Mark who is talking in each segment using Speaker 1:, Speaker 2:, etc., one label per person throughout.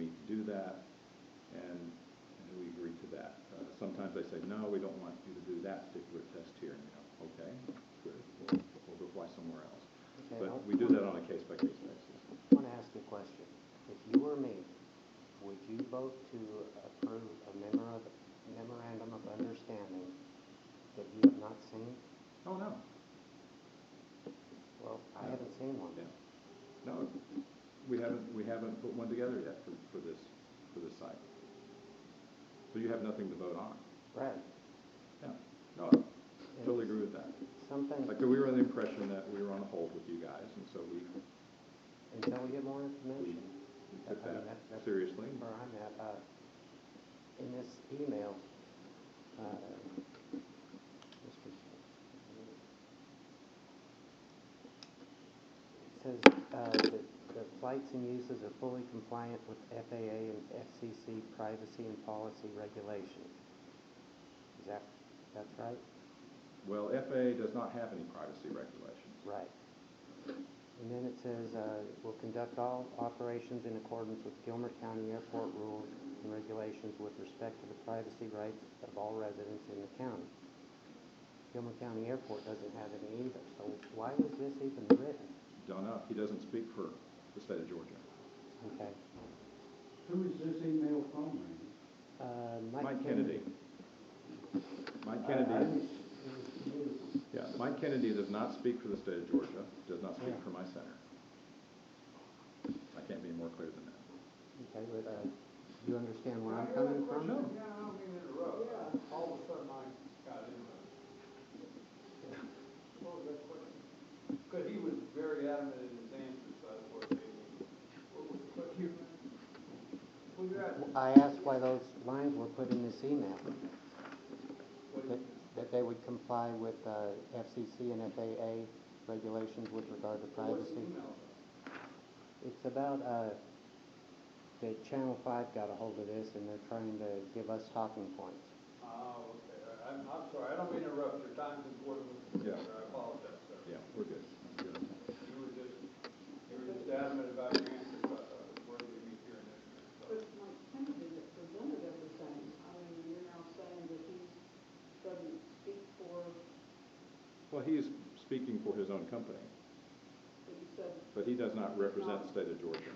Speaker 1: that, and, and we agreed to that. Uh, Sometimes they say, no, we don't want you to do that particular test here, and you go, okay, good, we'll, we'll go fly somewhere else.
Speaker 2: Okay,
Speaker 1: But
Speaker 2: I'll-
Speaker 1: we do that on a case-by-case basis.
Speaker 2: I want to ask you a question. If you were me, would you vote to approve a memor- memorandum of understanding that you have not seen?
Speaker 1: Oh, no,
Speaker 2: Well, I
Speaker 1: No.
Speaker 2: haven't seen one.
Speaker 1: yeah, no, we haven't, we haven't put one together yet for, for this, for this site. So you have nothing to vote on,
Speaker 2: Right.
Speaker 1: yeah, no, I totally agree with that.
Speaker 2: Something,
Speaker 1: Like, we were under the impression that we were on hold with you guys, and so we,
Speaker 2: until we get more
Speaker 1: we
Speaker 2: information.
Speaker 1: we took
Speaker 2: I mean,
Speaker 1: that
Speaker 2: that- that's-
Speaker 1: seriously.
Speaker 2: Where I'm at, uh, in this email, uh, Mr. It says, uh, that the flights and uses are fully compliant with FAA and FCC privacy and policy regulations. Is that, that's right?
Speaker 1: Well, FAA does not have any privacy regulations.
Speaker 2: Right. And then it says, uh, will conduct all operations in accordance with Gilmer County Airport rules and regulations with respect to the privacy rights of all residents in the county. Gilmer County Airport doesn't have any either, so why was this even written?
Speaker 1: Don't know, he doesn't speak for the state of Georgia.
Speaker 2: Okay.
Speaker 3: Who is this email from, Randy?
Speaker 2: Uh,
Speaker 1: Mike Kennedy. Mike Kennedy, yeah, Mike Kennedy does not speak for the state of Georgia, does not speak
Speaker 2: Yeah.
Speaker 1: for my center. I can't be more clear than that.
Speaker 2: Okay, but, uh, you understand where I'm coming from?
Speaker 1: No,
Speaker 4: Yeah, I don't mean to interrupt. Yeah. All of a sudden, I got interrupted. What was that question? Because he was very adamant in his answers, so I was thinking, what was the question? Well, you're at,
Speaker 2: I asked why those lines were put in this email,
Speaker 4: what
Speaker 2: that,
Speaker 4: is,
Speaker 2: that they would comply with, uh, FCC and FAA regulations with regard to
Speaker 4: what's
Speaker 2: privacy.
Speaker 4: the email?
Speaker 2: It's about, uh, the Channel Five got a hold of this and they're trying to give us talking points.
Speaker 4: Oh, okay, all right. I'm, I'm sorry, I don't mean to interrupt, your time's important,
Speaker 1: Yeah.
Speaker 4: Mr. Chairman. I apologize, sir.
Speaker 1: yeah, we're good. That's good.
Speaker 4: You were just, you were just adamant about your answers, so I thought it was worthy of me hearing it. So,
Speaker 5: But Mike Kennedy that presented everything, I mean, you're now saying that he doesn't speak for,
Speaker 1: Well, he is speaking for his own company,
Speaker 5: that he said,
Speaker 1: but he does not represent the state of Georgia.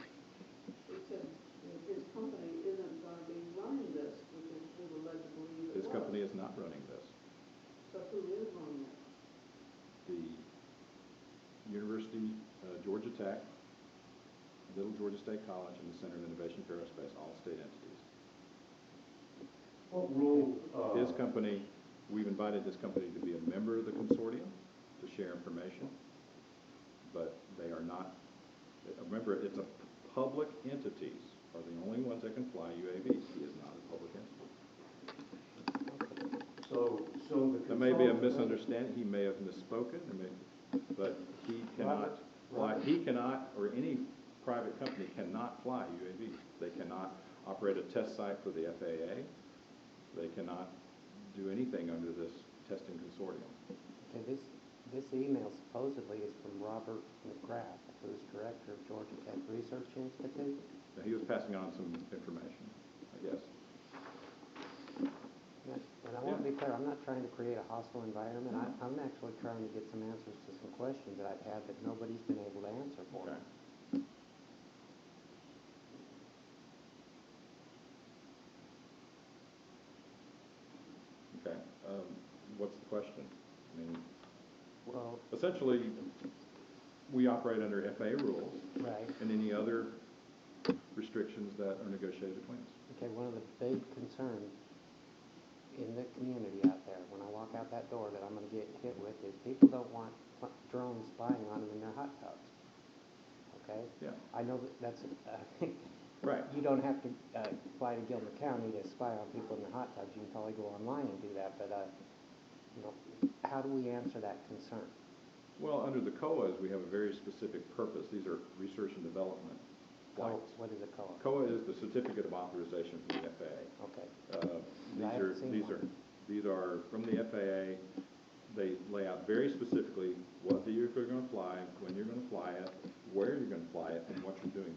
Speaker 5: he said that his company isn't gonna be running this, which is who would led to believe it was.
Speaker 1: His company is not running this.
Speaker 5: So who is running it?
Speaker 1: the University, uh, Georgia Tech, Little Georgia State College, and the Center of Innovation for Aerospace, all state entities.
Speaker 3: What rule, uh,
Speaker 1: His company, we've invited this company to be a member of the consortium, to share information, but they are not, remember, it's a, public entities are the only ones that can fly UAVs. He is not a public entity.
Speaker 3: so, so the.
Speaker 1: There may be a
Speaker 3: consultant-
Speaker 1: misunderstanding, he may have misspoken, there may, but he cannot fly,
Speaker 3: Robert.
Speaker 1: he cannot, or any private company cannot fly UAVs. They cannot operate a test site for the FAA, they cannot do anything under this testing consortium.
Speaker 2: Okay, this, this email supposedly is from Robert McGrath, who's director of Georgia Tech Research Institute.
Speaker 1: Now, he was passing on some information, I guess.
Speaker 2: And and I want to be clear, I'm not trying to create a hostile environment, I, I'm actually trying to get some answers to some questions that I've had that nobody's been able to answer for me.
Speaker 1: Okay. Okay, um, what's the question? I mean,
Speaker 2: Well,
Speaker 1: essentially, we operate under FAA rules
Speaker 2: right,
Speaker 1: and any other restrictions that are negotiated between us.
Speaker 2: Okay, one of the big concerns in the community out there, when I walk out that door that I'm gonna get hit with, is people don't want pl- drones spying on them in their hot tubs. Okay?
Speaker 1: Yeah,
Speaker 2: I know that that's, uh,
Speaker 1: right.
Speaker 2: you don't have to, uh, fly to Gilmer County to spy on people in their hot tubs, you can probably go online and do that, but, uh, you know, how do we answer that concern?
Speaker 1: Well, under the COAs, we have a very specific purpose. These are research and development
Speaker 2: Co-
Speaker 1: flights.
Speaker 2: What is it called?
Speaker 1: COA is the Certificate of Authorization from the FAA.
Speaker 2: Okay,
Speaker 1: Uh, These
Speaker 2: I
Speaker 1: are,
Speaker 2: haven't seen
Speaker 1: these
Speaker 2: one.
Speaker 1: are, these are from the FAA. They lay out very specifically what vehicle you're gonna fly, when you're gonna fly it, where you're gonna fly it, and what you're doing